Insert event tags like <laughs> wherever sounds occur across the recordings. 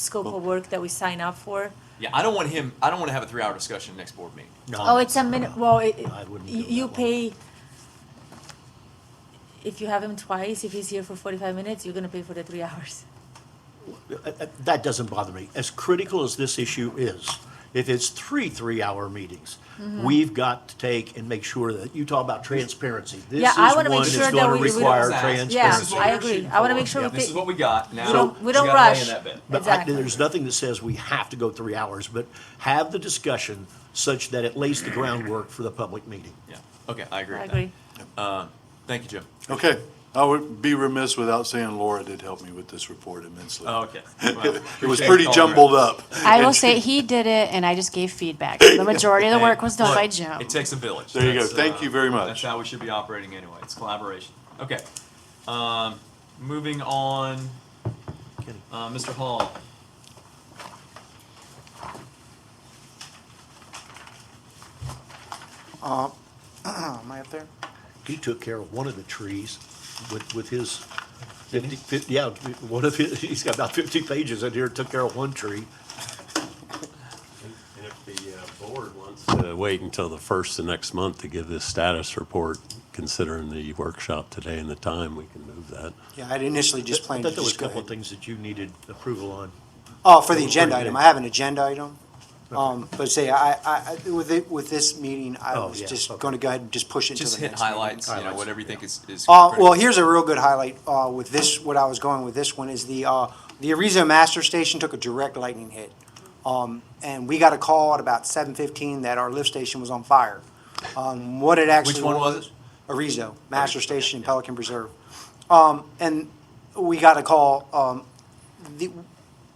scope of work that we sign up for. Yeah, I don't want him. I don't want to have a three-hour discussion next board meeting. No, Oh, it's a minute, well, it, Uh, I wouldn't do you you that one. pay, if you have him twice, if he's here for forty-five minutes, you're gonna pay for the three <laughs> hours. Uh, uh, That doesn't bother me. As critical as this issue is, if it's three three-hour meetings, Mm-hmm. we've got to take and make sure that, you talk about transparency. This Yeah, is I wanna make one that's sure that gonna we- we- This require is what transparency. was Yeah, asked. This is what I we were agree. shooting I wanna for. make sure we This pick- is what we got. Now We don't- we just don't gotta lay rush. in that bed. But I, Exactly. there's nothing that says we have to go three hours, but have the discussion such that it lays the groundwork for the public meeting. Yeah. Okay, I agree. I with agree. That. Uh, thank you, <laughs> Jim. Okay, I would be remiss without saying Laura did help me with this report immensely. okay. Well, <laughs> It was Oh, appreciate pretty all jumbled up. I will say he did it, and I just gave feedback. The majority of the Hey, work was done look, by Jim. It takes a village. There you go. That's, uh, Thank you very much. That's how we should be operating anyway. It's collaboration. Okay. Um, moving on, Kenny? uh, Mr. Hall. Am I up there? He took care of one of the trees with, with his fifty, fifty, yeah, one of his, he's got about fifty pages in here, took care of one tree. And if the uh, board wants to wait until the first of next month to give this status report, considering the workshop today and the time, we can move that. Yeah, I initially just I planned to thought there was a just go couple of ahead. things that you needed approval on. Oh, for the that was agenda pretty item, big. I have an agenda item. Um, but say, I, I, I- with it, with this meeting, I Oh, was yeah, just okay. gonna go ahead and just push it to the Just hit next meeting. highlights, you know, Highlights, whatever you think is, is Uh, critical. well, here's a real good highlight, uh, with this, what I was going with this one is the, uh, the Arizo Master Station took a direct lightning hit. Um, and we got a call at about seven fifteen that our lift station was on fire. Um, what it actually. Which one was it? Arizo, Master Station in Pelican Preserve. Um, and we got a call, um, the,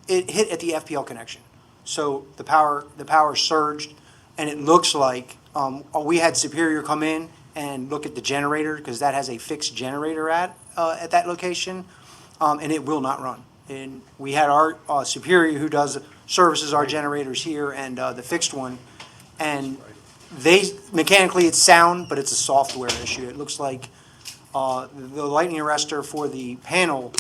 it hit at the FPL connection. So the power, the power surged, and it looks like, um, uh, we had Superior come in and look at the generator, because that has a fixed generator at, uh, at that location, um, and it will not run. And we had our, uh, Superior who does, services our generators here and, uh, the fixed one, and they, mechanically, it's sound, but it's a software issue. It looks like, uh, the lightning arrestor for the panel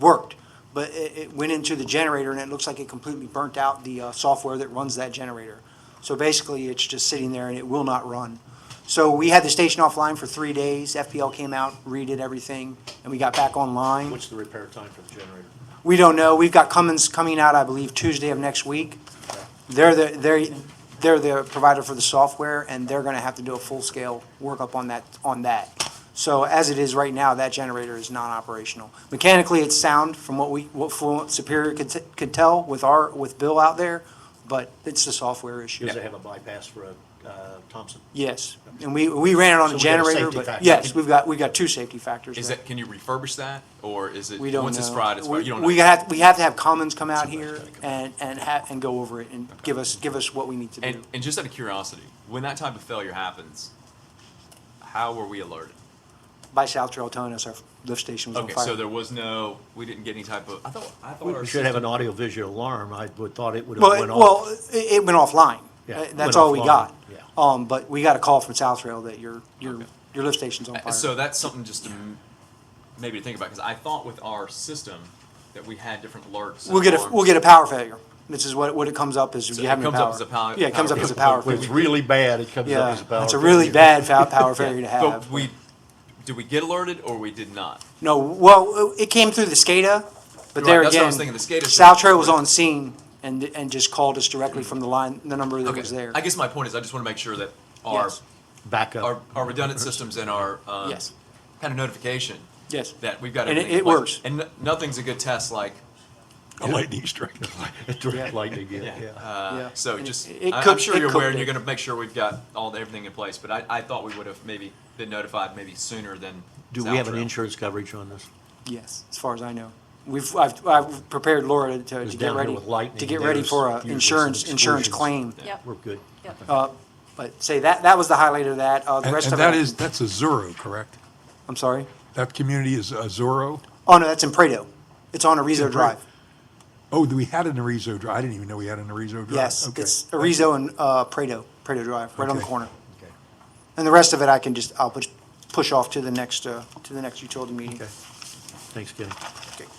worked, but it, it went into the generator and it looks like it completely burnt out the, uh, software that runs that generator. So basically, it's just sitting there and it will not run. So we had the station offline for three days. FPL came out, redid everything, and we got back online. What's the repair time for the generator? We don't know. We've got Cummins coming out, I believe, Tuesday of next week. They're the, they're, they're the provider for the software, and they're gonna have to do a full-scale workup on that, on that. So as it is right now, that generator is non-operational. Mechanically, it's sound from what we, what Fluent Superior could, t- could tell with our, with Bill out there, but it's the software issue. Does it have a bypass for a, uh, Thompson? Yes, and we, we ran it on So we a got a generator, safety but factor. yes, we've got, we've got two safety factors. Is there. that, can you refurbish that, or is it, We don't know. once it's fried, it's We- fried, you don't know? We have, we have to have Commons come out here and, and ha, and go over it and give us, give us what we need to do. And, and just out of curiosity, when that type of failure happens, how were we alerted? By South Trail telling us our lift station was on Okay, so fire. there was no, we didn't get any type of, I thought, I thought our We should have an system- audio visual alarm. I would thought it would have Well, went it- off. well, it, it went offline. Yeah, Uh, it went That's all we offline, got. yeah. Um, but we got a call from South Trail that your, your, Okay. your lift station's on Uh, So fire. that's something just to m- maybe to think about, because I thought with our system that we had different alerts. We'll get a, on- we'll get a power failure. This is what, what it comes up as, So you it have no comes up power. as a power- Yeah, it comes power up as a failure. power When it's failure. really bad, it comes up Yeah, as a power. it's a really failure. bad <laughs> foul power failure to have. But we, did we get alerted or we did not? No, well, it came through the SCADA, but Right, there again. that's what I was thinking, the SCADA system. South Trail was on scene and, and just called us directly from the line, the number that Okay, was there. I guess my point is, I just want to make sure that our, Yes. Backup. our, our redundant systems and our, um, Yes. kind of notification, Yes, that we've got And it- everything in it place. works. And no- nothing's a good test like, A lightning strike. <laughs> Direct lightning, yeah, yeah. Uh, Yeah. So And just, it- it I- I'm cooked- sure it you're aware, cooked and you're it. gonna make sure we've got all, the- everything in place, but I, I thought we would have maybe been notified maybe sooner than. Do we have an Southfield. insurance coverage on this? yes, as far as I know. We've, I've, I've prepared Laura to, It's to down get here ready, with lightning, to get ready there's for a usually some insurance, insurance exclusions. claim. Yep, We're good. yep. Uh, But say, that, that was the highlight of that, uh, the And rest and of it. that is, that's a Zorro, correct? I'm sorry? That community is a Zorro? Oh, no, that's in Prado. It's on Arizo Drive. Oh, do we had an Arizo Drive. I didn't even know we had an Arizo Drive. Yes, Okay. it's Arizo and, uh, Prado, Prado Drive, right on the Okay. corner. Okay. And the rest of it, I can just, I'll push, push off to the next, uh, to the next utility meeting. Okay. Thanks, Kenny. Okay.